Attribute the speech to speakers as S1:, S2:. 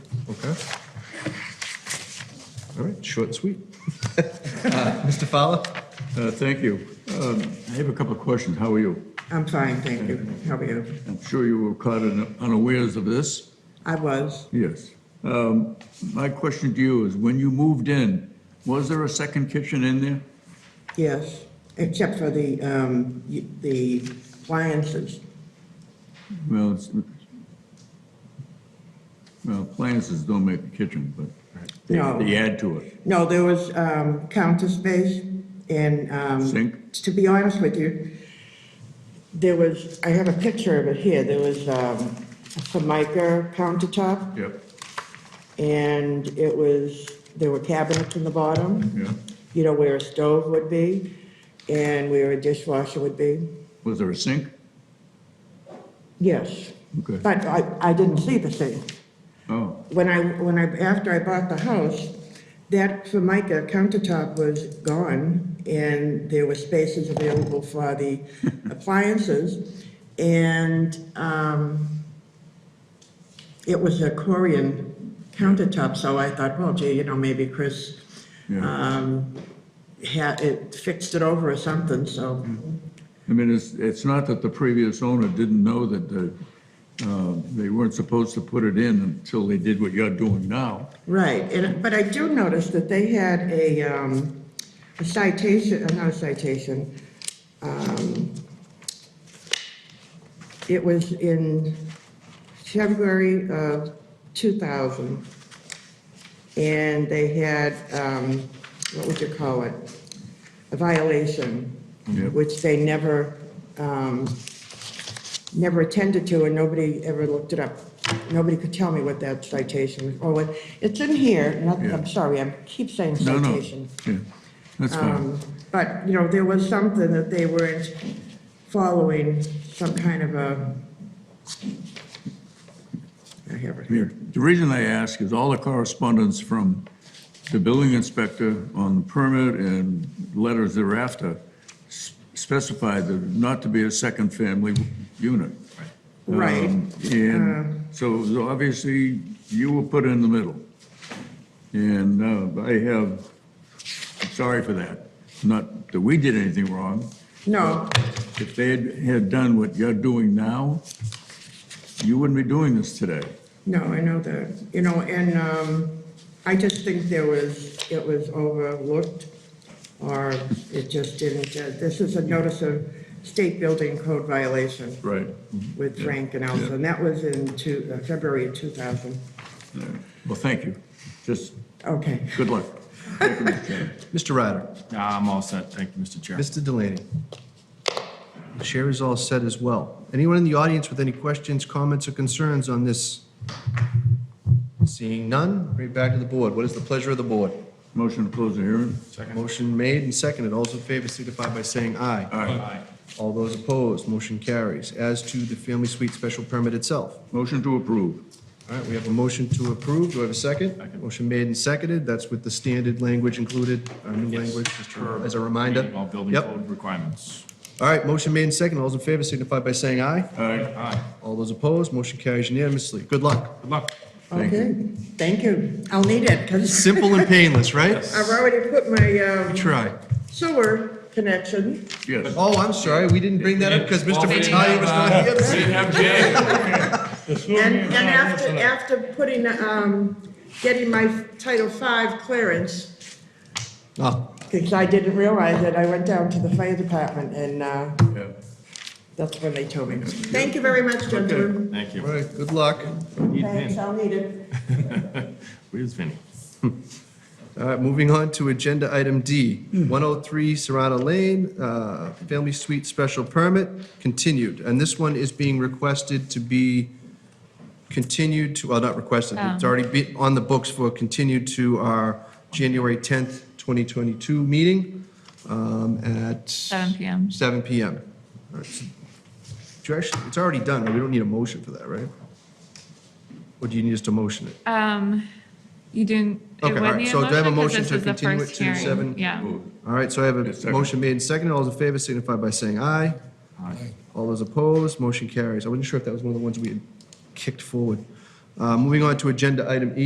S1: Okay. All right, short and sweet. Uh, Mr. Fowler?
S2: Uh, Thank you. Um, I have a couple of questions. How are you?
S3: I'm fine, thank you. How are you?
S2: I'm sure you were caught in- unawares of this.
S3: I was.
S2: Yes. Um, My question to you is, when you moved in, was there a second kitchen in there?
S3: Yes, except for the, um, y- the appliances.
S2: Well, it's, well, appliances don't make a kitchen, but they-
S3: No.
S2: they add to it.
S3: No, there was, um, counter space and, um.
S2: Sink?
S3: To be honest with you, there was, I have a picture of it here. There was, um, a formica countertop
S2: Yep,
S3: and it was, there were cabinets in the bottom,
S2: yeah.
S3: you know, where a stove would be and where a dishwasher would be.
S2: Was there a sink?
S3: Yes,
S2: Okay.
S3: but I, I didn't see the sink.
S2: Oh,
S3: when I, when I, after I bought the house, that Formica countertop was gone, and there were spaces available for the appliances, and, um, it was a Corian countertop, so I thought, well, gee, you know, maybe Chris,
S2: yeah.
S3: um, had, it fixed it over or something, so,
S2: I mean, it's, it's not that the previous owner didn't know that the, uh, they weren't supposed to put it in until they did what you're doing now.
S3: right, and, but I do notice that they had a, um, a citation, uh, not a citation, um, It was in February of 2000. And they had, um, what would you call it? A violation,
S2: Yep.
S3: which they never, um, never attended to, and nobody ever looked it up. Nobody could tell me what that citation was, or what, it's in here, not,
S2: Yeah.
S3: I'm sorry, I keep saying
S2: No, no,
S3: citation.
S2: yeah, that's fine.
S3: Um, But, you know, there was something that they weren't following, some kind of a, I have it here.
S2: Here, The reason I ask is all the correspondence from the building inspector on the permit and letters thereafter s- specify that not to be a second family unit.
S3: Right.
S2: Um, And so so obviously you were put in the middle. And uh, I have, sorry for that, not that we did anything wrong,
S3: No,
S2: if they had, had done what you're doing now, you wouldn't be doing this today.
S3: no, I know that, you know, and um, I just think there was, it was overlooked, or it just didn't, uh, this is a notice of state building code violation
S2: Right.
S3: with Frank and Elsa,
S2: Yeah.
S3: and that was in two- uh, February of 2000.
S2: Well, thank you. Just,
S3: Okay.
S2: good luck. Thank you, Mr. Chairman.
S1: Mr. Ryder.
S4: Ah, I'm all set. Thank you, Mr. Chair.
S1: Mr. Delaney. The chair is all set as well. Anyone in the audience with any questions, comments, or concerns on this? Seeing none, bring it back to the board. What is the pleasure of the board?
S2: Motion to close the hearing?
S1: Motion made and seconded. All those in favor signify by saying aye.
S4: Aye.
S1: All those opposed, motion carries. As to the family suite special permit itself.
S2: Motion to approve.
S1: All right, we have a motion to approve. Do I have a second? Motion made and seconded. That's with the standard language included, our new language, just
S4: Per
S1: as a reminder.
S4: meeting All building
S1: Yep.
S4: code requirements.
S1: All right, motion made and seconded. All those in favor signify by saying aye.
S2: Aye.
S4: Aye.
S1: All those opposed, motion carries unanimously. Good luck.
S4: Good luck.
S2: Thank you.
S3: Okay, thank you. I'll need it, because
S1: Simple and painless, right?
S3: I've already put my um,
S1: Try.
S3: sewer connection.
S2: Yes.
S1: Oh, I'm sorry, we didn't bring that up because Mr. Vitale was not here.
S3: And, and after, after putting, um, getting my Title V clearance,
S1: Oh,
S3: because I didn't realize it, I went down to the fire department and, uh,
S2: Yeah.
S3: that's when they told me. Thank you very much, gentlemen.
S4: Thank
S1: all
S4: you.
S1: right, good luck.
S4: Need
S3: Thanks,
S4: Vinny.
S3: I'll need it.
S4: Where's Vinny?
S1: All right, moving on to agenda item D, 103 Serrano Lane, uh, Family Suite Special Permit, continued. And this one is being requested to be continued to, well, not requested, it's already be on the books for continued to our January 10th, 2022 meeting um, at...
S5: 7 PM.
S1: 7 PM. All right, so- do you actually- It's already done, right? we don't need a motion for that, right? Or do you need us to motion it?
S5: Um, you didn't,
S1: Okay,
S5: it
S1: all
S5: would
S1: right.
S5: need a
S1: So do I have a motion
S5: motion because this is
S1: to
S5: the
S1: continue
S5: first
S1: it to seven-
S5: hearing. Yeah.
S2: Move.
S1: All right, so I have
S2: Yes,
S1: a
S2: second.
S1: motion made and seconded. All those in favor signify by saying aye.
S4: Aye.
S1: All those opposed, motion carries. I wasn't sure if that was one of the ones we had kicked forward. Uh, Moving on to agenda item E,